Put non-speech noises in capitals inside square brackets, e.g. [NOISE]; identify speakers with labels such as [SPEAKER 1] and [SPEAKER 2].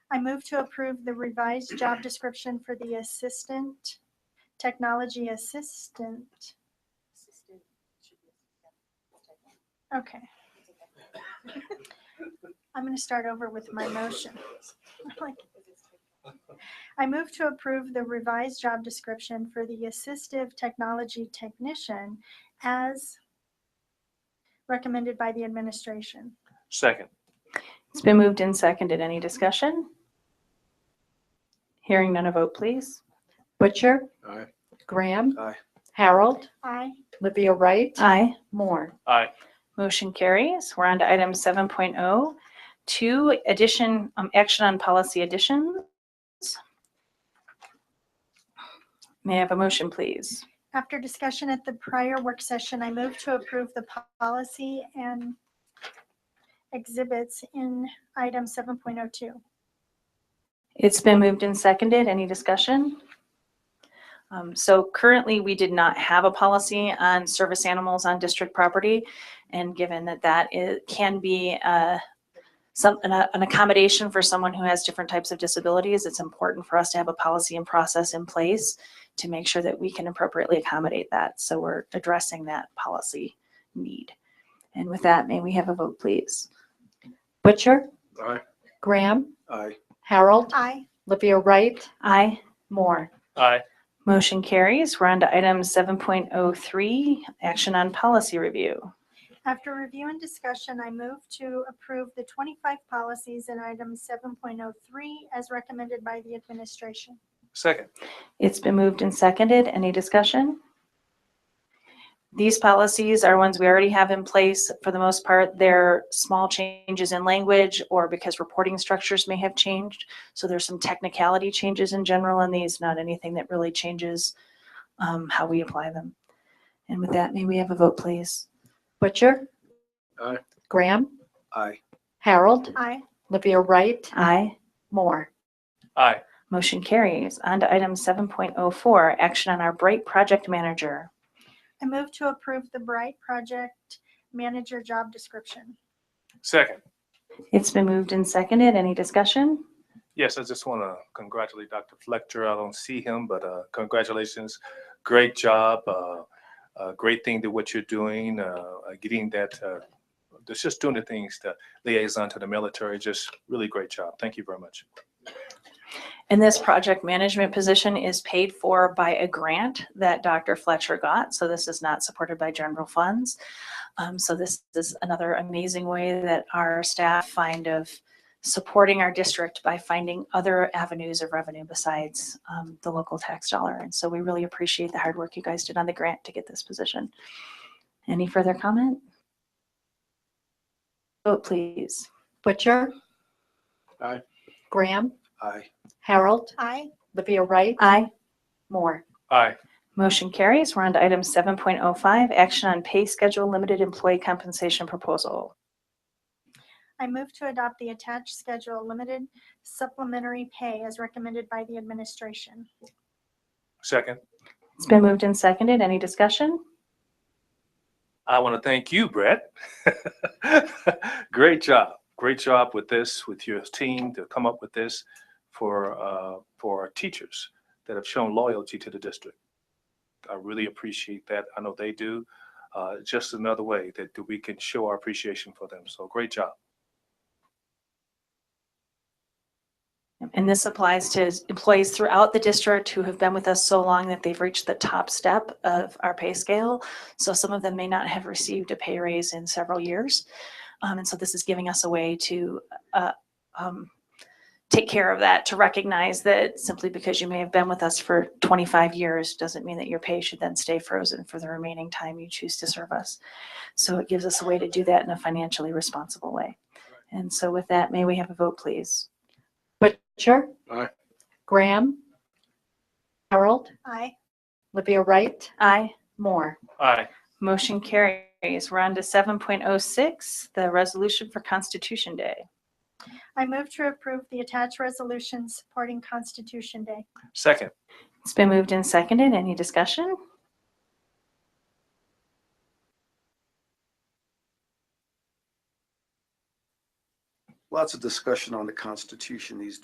[SPEAKER 1] I move to approve the revised job description for the assistant, technology assistant.
[SPEAKER 2] Assistant should be assistant.
[SPEAKER 1] Okay, I'm going to start over with my motion. I'm like, I move to approve the revised job description for the assistive technology technician as recommended by the administration.
[SPEAKER 3] Second.
[SPEAKER 4] It's been moved and seconded. Any discussion? Hearing none, a vote please.
[SPEAKER 5] Butcher,
[SPEAKER 3] Aye.
[SPEAKER 5] Graham.
[SPEAKER 3] Aye.
[SPEAKER 5] Harold,
[SPEAKER 1] Aye.
[SPEAKER 5] Livia Wright,
[SPEAKER 4] Aye.
[SPEAKER 5] Moore.
[SPEAKER 3] Aye.
[SPEAKER 4] Motion carries. We're on to item 7.0, two addition, um, action on policy additions. May I have a motion, please?
[SPEAKER 1] After discussion at the prior work session, I move to approve the policy and exhibits in item 7.02.
[SPEAKER 4] It's been moved and seconded. Any discussion? Um, So currently, we did not have a policy on service animals on district property. And given that that is, can be uh, some, an an accommodation for someone who has different types of disabilities, it's important for us to have a policy and process in place to make sure that we can appropriately accommodate that. So we're addressing that policy need. And with that, may we have a vote, please?
[SPEAKER 5] Butcher,
[SPEAKER 3] Aye.
[SPEAKER 5] Graham,
[SPEAKER 3] Aye.
[SPEAKER 5] Harold,
[SPEAKER 1] Aye.
[SPEAKER 5] Livia Wright,
[SPEAKER 4] Aye.
[SPEAKER 5] Moore.
[SPEAKER 3] Aye.
[SPEAKER 4] Motion carries. We're on to item 7.03, action on policy review.
[SPEAKER 1] After review and discussion, I move to approve the 25 policies in item 7.03 as recommended by the administration.
[SPEAKER 3] Second.
[SPEAKER 4] It's been moved and seconded. Any discussion? These policies are ones we already have in place. For the most part, they're small changes in language or because reporting structures may have changed. So there's some technicality changes in general in these, not anything that really changes um, how we apply them. And with that, may we have a vote, please?
[SPEAKER 5] Butcher.
[SPEAKER 3] Aye.
[SPEAKER 5] Graham,
[SPEAKER 3] Aye.
[SPEAKER 5] Harold,
[SPEAKER 1] Aye.
[SPEAKER 5] Livia Wright,
[SPEAKER 4] Aye.
[SPEAKER 5] Moore.
[SPEAKER 3] Aye.
[SPEAKER 4] Motion carries. On to item 7.04, action on our Bright Project Manager.
[SPEAKER 1] I move to approve the Bright Project Manager job description.
[SPEAKER 3] Second.
[SPEAKER 4] It's been moved and seconded. Any discussion?
[SPEAKER 3] Yes, I just want to congratulate Dr. Fletcher. I don't see him, but uh, congratulations. Great job. Uh, uh, great thing to what you're doing, uh, uh, getting that, uh, just just doing the things, the liaison to the military. Just really great job. Thank you very much.
[SPEAKER 4] And this project management position is paid for by a grant that Dr. Fletcher got, so this is not supported by general funds. Um, So this is another amazing way that our staff find of supporting our district by finding other avenues of revenue besides um, the local tax dollar. And so we really appreciate the hard work you guys did on the grant to get this position. Any further comment? Vote, please.
[SPEAKER 5] Butcher.
[SPEAKER 3] Aye.
[SPEAKER 5] Graham,
[SPEAKER 3] Aye.
[SPEAKER 5] Harold,
[SPEAKER 1] Aye.
[SPEAKER 5] Livia Wright,
[SPEAKER 4] Aye.
[SPEAKER 5] Moore.
[SPEAKER 3] Aye.
[SPEAKER 4] Motion carries. We're on to item 7.05, action on pay schedule limited employee compensation proposal.
[SPEAKER 1] I move to adopt the attached schedule, limited supplementary pay as recommended by the administration.
[SPEAKER 3] Second.
[SPEAKER 4] It's been moved and seconded. Any discussion?
[SPEAKER 3] I want to thank you, Brett. [LAUGHS] Great job. Great job with this, with your team to come up with this for, uh, for our teachers that have shown loyalty to the district. I really appreciate that. I know they do. Uh, just another way that we can show our appreciation for them. So great job.
[SPEAKER 4] And this applies to employees throughout the district who have been with us so long that they've reached the top step of our pay scale. So some of them may not have received a pay raise in several years. Um, and so this is giving us a way to, uh, um, take care of that, to recognize that simply because you may have been with us for 25 years doesn't mean that your pay should then stay frozen for the remaining time you choose to serve us. So it gives us a way to do that in a financially responsible way. And so with that, may we have a vote, please?
[SPEAKER 5] Butcher.
[SPEAKER 3] Aye.
[SPEAKER 5] Graham, Harold,
[SPEAKER 1] Aye.
[SPEAKER 5] Livia Wright,
[SPEAKER 4] Aye.
[SPEAKER 5] Moore.
[SPEAKER 3] Aye.
[SPEAKER 4] Motion carries. We're on to seven point oh six, the resolution for Constitution Day.
[SPEAKER 1] I move to approve the attached resolution supporting Constitution Day.
[SPEAKER 3] Second.
[SPEAKER 4] It's been moved and seconded. Any discussion?
[SPEAKER 6] lots of discussion on the Constitution these days.